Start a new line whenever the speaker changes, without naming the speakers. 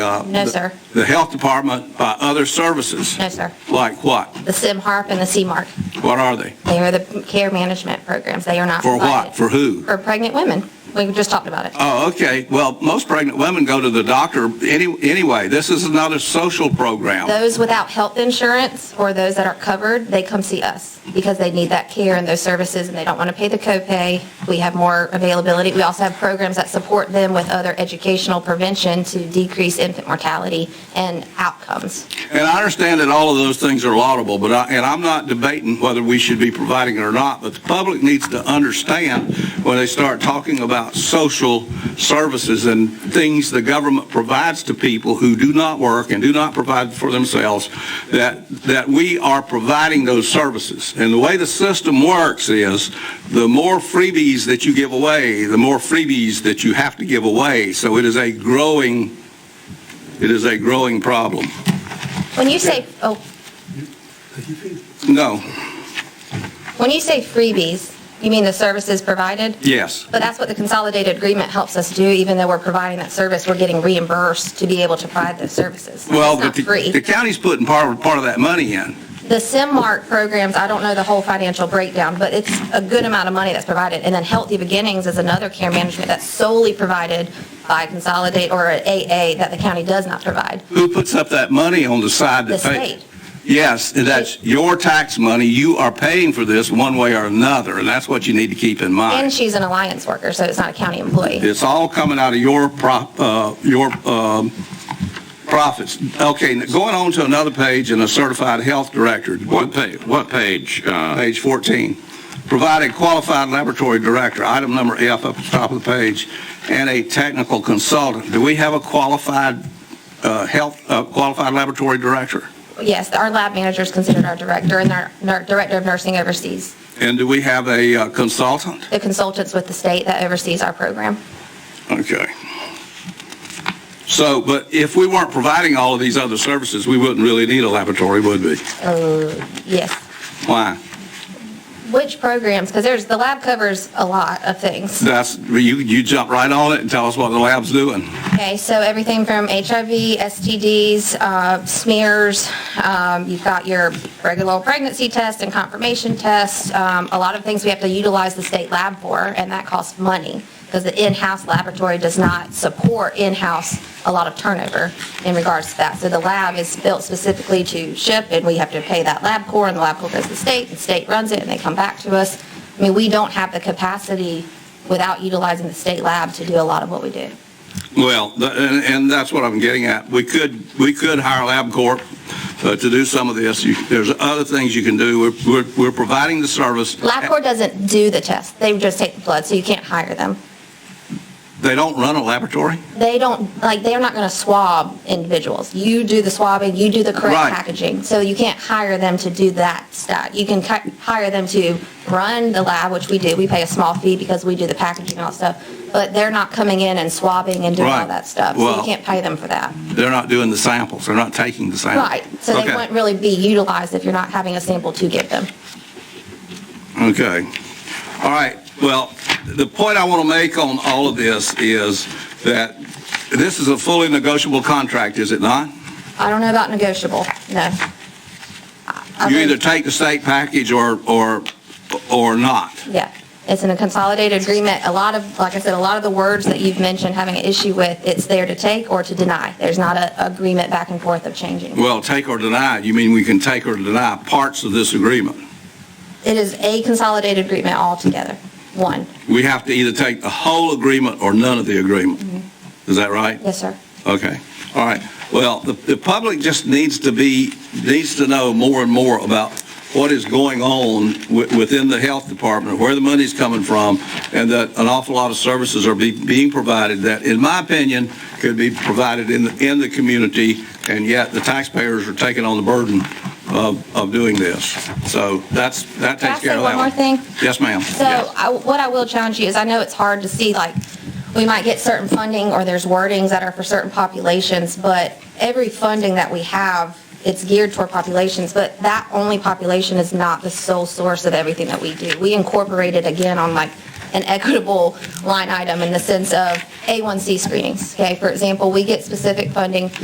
uh,
No, sir.
The health department by other services?
No, sir.
Like what?
The SIM HARP and the CMARC.
What are they?
They are the care management programs. They are not.
For what?
provided.
For who?
For pregnant women. We just talked about it.
Oh, okay. Well, most pregnant women go to the doctor any, anyway. This is another social program.
Those without health insurance or those that are covered, they come see us because they need that care and those services and they don't want to pay the copay. We have more availability. We also have programs that support them with other educational prevention to decrease infant mortality and outcomes.
And I understand that all of those things are laudable, but I, and I'm not debating whether we should be providing it or not, but the public needs to understand when they start talking about social services and things the government provides to people who do not work and do not provide for themselves, that, that we are providing those services. And the way the system works is the more freebies that you give away, the more freebies that you have to give away. So it is a growing, it is a growing problem.
When you say, oh,
No,
when you say freebies, you mean the services provided?
yes.
But that's what the consolidated agreement helps us do, even though we're providing that service, we're getting reimbursed to be able to provide those services.
Well,
It's not
but the-
free.
the county's putting part, part of that money in.
The SIMMART programs, I don't know the whole financial breakdown, but it's a good amount of money that's provided. And then Healthy Beginnings is another care management that's solely provided by Consolidate or AA that the county does not provide,
Who puts up that money on the side
the
that pays?
state.
Yes, and that's your tax money. You are paying for this one way or another, and that's what you need to keep in
And
mind.
she's an alliance worker, so it's not a county employee.
It's all coming out of your prop, uh, your, um, profits. Okay, n- going on to another page and a certified health director.
What page, what page? uh,
Page 14. Provide a qualified laboratory director, item number F up at the top of the page, and a technical consultant. Do we have a qualified uh, health, uh, qualified laboratory director?
Yes, our lab manager is considered our director and our our director of nursing oversees
And do we have a uh, consultant?
the consultants with the state that oversees our program.
Okay. So, but if we weren't providing all of these other services, we wouldn't really need a laboratory, would we?
Yes.
Why?
Which programs? Because there's, the lab covers a lot of things.
That's, you, you jump right on it and tell us what the lab's doing.
Okay, so everything from HIV, STDs, uh, smears, um, you've got your regular old pregnancy test and confirmation test, um, a lot of things we have to utilize the state lab for, and that costs money, because the in-house laboratory does not support in-house a lot of turnover in regards to that. So the lab is built specifically to ship, and we have to pay that lab core, and the lab core goes to the state, and the state runs it, and they come back to us. I mean, we don't have the capacity without utilizing the state lab to do a lot of what we do.
Well, th- and, and that's what I'm getting at. We could, we could hire LabCorp uh, to do some of this. You- There's other things you can do. We're- We're, we're providing the service.
LabCorp doesn't do the test. They just take the blood, so you can't hire them.
They don't run a laboratory?
They don't, like, they're not going to swab individuals. You do the swabbing, you do the
Right.
correct packaging. So you can't hire them to do that stuff. You can ki- hire them to run the lab, which we do. We pay a small fee because we do the packaging and all stuff. But they're not coming in and swabbing and doing all
Right.
that stuff. So
Well-
you can't pay them for that.
They're not doing the samples. They're not taking the samples.
Right. So they
Okay.
wouldn't really be utilized if you're not having a sample to give them.
Okay. All right. Well, the point I want to make on all of this is that this is a fully negotiable contract, is it not?
I don't know about negotiable, no. I- I
You
think-
either take the state package or, or, or not.
Yeah, it's in a consolidated agreement. A lot of, like I said, a lot of the words that you've mentioned having an issue with, it's there to take or to deny. There's not a agreement back and forth of changing.
Well, take or deny, you mean we can take or deny parts of this agreement?
It is a consolidated agreement altogether, one.
We have to either take the whole agreement or none of the agreement.
Mm-hmm.
Is that right?
Yes, sir.
Okay, all right. Well, the, the public just needs to be, needs to know more and more about what is going on wi- within the health department, where the money's coming from, and that an awful lot of services are be, being provided that, in my opinion, could be provided in, the in the community, and yet the taxpayers are taking on the burden of, of doing this. So that's, that
Can I
takes care
say
of that
one more
one.
thing?
Yes, ma'am.
So I- what I will challenge you is, I know it's hard to see, like, we might get certain funding or there's wordings that are for certain populations, but every funding that we have, it's geared toward populations, but that only population is not the sole source of everything that we do. We incorporated again on like an equitable line item in the sense of A1C screenings, okay? For example, we get specific funding